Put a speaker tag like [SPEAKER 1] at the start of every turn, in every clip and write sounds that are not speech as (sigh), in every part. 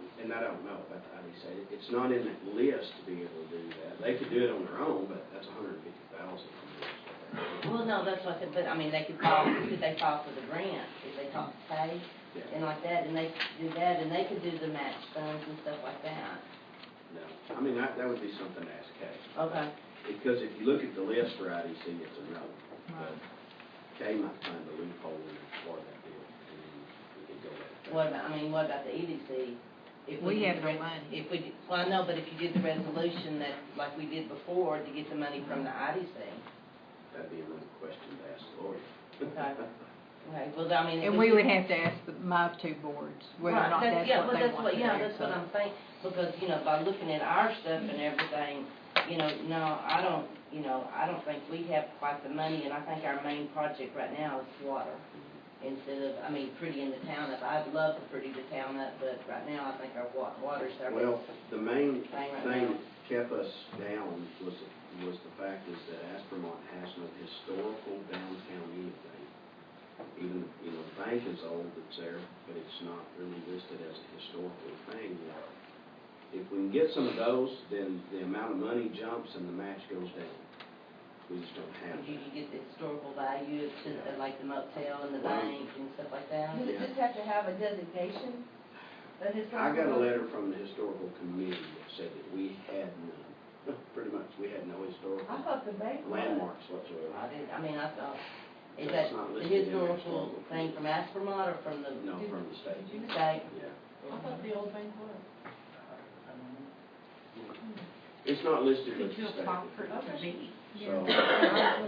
[SPEAKER 1] don't know about the ID state. It's not in that list to be able to do that. They could do it on their own, but that's a hundred and fifty thousand.
[SPEAKER 2] Well, no, that's what I said, but I mean, they could file, could they file for the grant, if they talk to Patty
[SPEAKER 1] Yeah,
[SPEAKER 2] and like that, and they could do that, and they could do the match funds and stuff like that.
[SPEAKER 1] no. I mean, that, that would be something to ask Kay.
[SPEAKER 2] Okay.
[SPEAKER 1] Because if you look at the list for IDC, it's a no. But Kay might find a loophole in it for that deal. and then we could go that way.
[SPEAKER 2] What about, I mean, what about the EDC? If
[SPEAKER 3] We
[SPEAKER 2] did the
[SPEAKER 3] have
[SPEAKER 2] re-
[SPEAKER 3] no money.
[SPEAKER 2] If we, did- well, I know, but if you did the resolution that, like we did before, to get the money from the IDC,
[SPEAKER 1] That'd be another question to ask the lawyer.
[SPEAKER 2] okay?
[SPEAKER 1] (laughs)
[SPEAKER 2] Okay, well, I mean. it
[SPEAKER 3] And
[SPEAKER 2] was
[SPEAKER 3] we would
[SPEAKER 2] just-
[SPEAKER 3] have to ask the- my two boards whether or
[SPEAKER 2] Right,
[SPEAKER 3] not that's
[SPEAKER 2] yeah, well,
[SPEAKER 3] what they
[SPEAKER 2] that's
[SPEAKER 3] want
[SPEAKER 2] what-
[SPEAKER 3] to do.
[SPEAKER 2] Yeah, that's
[SPEAKER 3] so.
[SPEAKER 2] what I'm saying, because, you know, by looking at our stuff and everything, you know, no, I don't, you know, I don't think we have quite the money, and I think our main project right now is water. Instead of, I mean, prettying the town up, I'd love to pretty the town up, but right now, I think our wa- water's our.
[SPEAKER 1] Well, the main
[SPEAKER 2] Thing right
[SPEAKER 1] thing
[SPEAKER 2] now.
[SPEAKER 1] that kept us down was, was the fact is that Aspermont has no historical downtown anything. Even, you know, the bank is old, it's there, but it's not really listed as a historical thing yet. If we can get some of those, then the amount of money jumps and the match goes down. We just don't have
[SPEAKER 2] You, you
[SPEAKER 1] that.
[SPEAKER 2] get the historical value to, the- like the motel and the
[SPEAKER 1] Well-
[SPEAKER 2] bank and stuff like that.
[SPEAKER 4] Does it just have to have a designation?
[SPEAKER 1] I got
[SPEAKER 4] A
[SPEAKER 1] a
[SPEAKER 4] historical-
[SPEAKER 1] letter from the historical committee that said that we had none, (laughs) pretty much, we had no
[SPEAKER 4] I
[SPEAKER 1] historical
[SPEAKER 4] thought the bank. was.
[SPEAKER 1] landmarks whatsoever.
[SPEAKER 2] I didn't, I mean, I thought, is that
[SPEAKER 1] That's not
[SPEAKER 2] the
[SPEAKER 1] listed in the
[SPEAKER 2] historical
[SPEAKER 1] historical.
[SPEAKER 2] thing from Aspermont or from the?
[SPEAKER 1] No, from the state.
[SPEAKER 2] Did you say?
[SPEAKER 1] Yeah.
[SPEAKER 4] I thought the old bank was.
[SPEAKER 1] It's not listed
[SPEAKER 5] Could
[SPEAKER 1] with
[SPEAKER 5] you
[SPEAKER 1] the
[SPEAKER 5] apply for
[SPEAKER 1] state.
[SPEAKER 5] it to be?
[SPEAKER 1] So,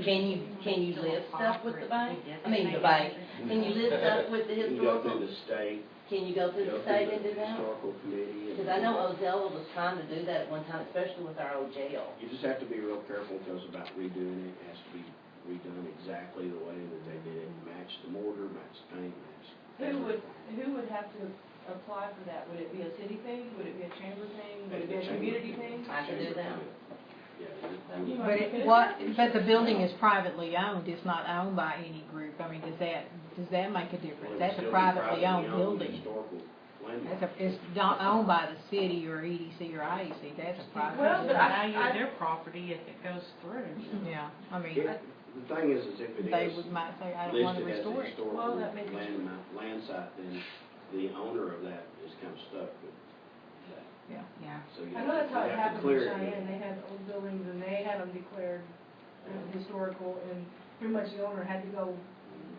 [SPEAKER 2] Can you, can you list stuff with the bank? I mean, the bank, can you list stuff with the
[SPEAKER 1] you can go
[SPEAKER 2] historical?
[SPEAKER 1] through the state,
[SPEAKER 2] Can you go
[SPEAKER 1] go
[SPEAKER 2] through
[SPEAKER 1] through
[SPEAKER 2] the state and do
[SPEAKER 1] the
[SPEAKER 2] that?
[SPEAKER 1] historical committee. and-
[SPEAKER 2] Because I know Ozella was trying to do that one time, especially with our old jail.
[SPEAKER 1] You just have to be real careful because about redoing it, it has to be redone exactly the way that they did it, match the mortar, match the paint, match.
[SPEAKER 4] Who would, who would have to apply for that? Would it be a city thing? Would it be a chamber thing? Would it be a community thing?
[SPEAKER 2] I can do that.
[SPEAKER 1] Yeah. you- you-
[SPEAKER 3] But it, what, but the building is privately owned, it's not owned by any group, I mean, does that, does that make
[SPEAKER 1] Well,
[SPEAKER 3] a
[SPEAKER 1] it
[SPEAKER 3] difference?
[SPEAKER 1] would
[SPEAKER 3] That's
[SPEAKER 1] still be
[SPEAKER 3] a privately owned building.
[SPEAKER 1] Historical
[SPEAKER 3] That's
[SPEAKER 1] landmark.
[SPEAKER 3] a, it's not owned by the city or EDC or IEC, that's a private.
[SPEAKER 4] Well, but I-
[SPEAKER 5] Value of their property if it goes through.
[SPEAKER 3] Yeah, I mean,
[SPEAKER 1] It- The thing is, is if it is.
[SPEAKER 3] they would, might say, I don't wanna
[SPEAKER 1] listed as a
[SPEAKER 3] restore it.
[SPEAKER 1] historical
[SPEAKER 4] Well, that may be
[SPEAKER 1] land, ma- land site, then the owner of that is kind of stuck with that.
[SPEAKER 5] Yeah.
[SPEAKER 1] So you
[SPEAKER 4] I
[SPEAKER 1] have
[SPEAKER 4] know
[SPEAKER 1] to-
[SPEAKER 4] that's how
[SPEAKER 1] you
[SPEAKER 4] it
[SPEAKER 1] have to
[SPEAKER 4] happened in
[SPEAKER 1] clear it.
[SPEAKER 4] Cheyenne. They had old buildings and they had them declared uh, historical and pretty much the owner had to go.
[SPEAKER 1] Mm-hmm.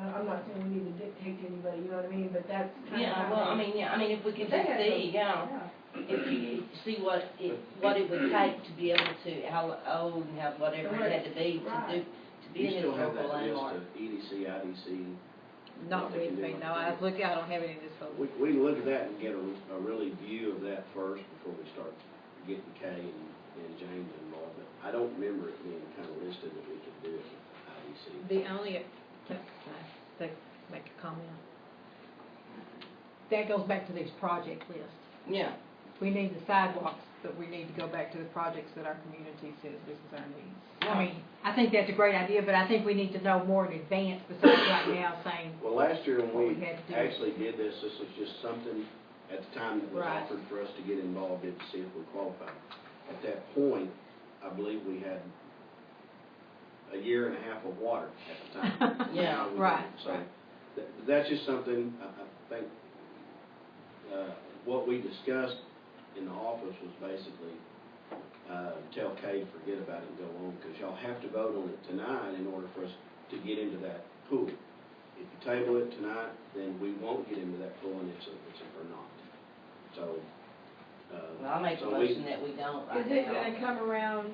[SPEAKER 4] I- I'm not saying we need to dictate to anybody, you know what I mean? But that's kind of.
[SPEAKER 2] Yeah, well, I mean, yeah, I mean, if we could just see, yeah, if you could see what it, what it would take to be able to, how old and how whatever it had to be to do, to be
[SPEAKER 1] You
[SPEAKER 2] a
[SPEAKER 1] still have
[SPEAKER 2] historical
[SPEAKER 1] that list
[SPEAKER 2] landmark.
[SPEAKER 1] of E EDC, IDC.
[SPEAKER 3] Not with me, no, I look, I don't have any of this whole.
[SPEAKER 1] We, we can look at that and get a, a really view of that first before we start getting Kay and, and James involved. But I don't remember it being kind of listed that we could do it with IDC.
[SPEAKER 3] The only, can I take- make a comment? That goes back to these project lists.
[SPEAKER 2] Yeah,
[SPEAKER 3] We need the sidewalks, but we need to go back to the projects that our community says this is our needs. I mean, I think that's a great idea, but I think we need to know more in advance besides right now saying,
[SPEAKER 1] Well, last year
[SPEAKER 3] What we
[SPEAKER 1] when we
[SPEAKER 3] had to do.
[SPEAKER 1] actually did this, this was just something at the time that was
[SPEAKER 3] Right.
[SPEAKER 1] offered for us to get involved in to see if we qualified. At that point, I believe we had a year and a half of water at the time.
[SPEAKER 3] (laughs)
[SPEAKER 2] Yeah,
[SPEAKER 3] right,
[SPEAKER 1] So
[SPEAKER 3] right.
[SPEAKER 1] th- that's just something, I I think, uh, what we discussed in the office was basically, uh, tell Kay, forget about it and go on, because y'all have to vote on it tonight in order for us to get into that pool. If you table it tonight, then we won't get into that pool, and it's a, it's a for naught. So, uh.
[SPEAKER 2] well, I make a
[SPEAKER 1] so we-
[SPEAKER 2] motion that we don't
[SPEAKER 4] Is
[SPEAKER 2] right
[SPEAKER 4] it
[SPEAKER 2] now.
[SPEAKER 4] gonna come around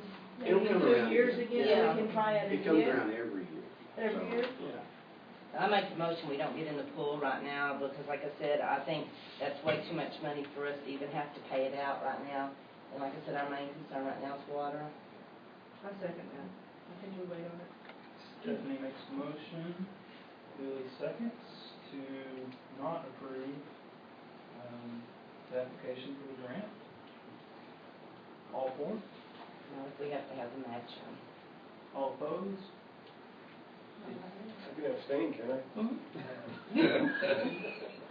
[SPEAKER 1] It'll
[SPEAKER 4] maybe in
[SPEAKER 1] come
[SPEAKER 4] two
[SPEAKER 1] around
[SPEAKER 4] years
[SPEAKER 1] again.
[SPEAKER 4] again?
[SPEAKER 2] Yeah.
[SPEAKER 4] We can try it again?
[SPEAKER 1] It comes around every year.
[SPEAKER 4] Every
[SPEAKER 1] so,
[SPEAKER 4] year?
[SPEAKER 1] yeah.
[SPEAKER 2] I make the motion, we don't get in the pool right now, because like I said, I think that's way too much money for us to even have to pay it out right now. And like I said, our main concern right now is water.
[SPEAKER 4] I second that. I think we wait on it.
[SPEAKER 6] Stephanie makes a motion, Billy seconds, to not approve, um, the application for the grant. All for, it?
[SPEAKER 2] Now, if we have to have the match on.
[SPEAKER 6] all opposed?
[SPEAKER 7] I could abstain, can I?
[SPEAKER 6] Mhm.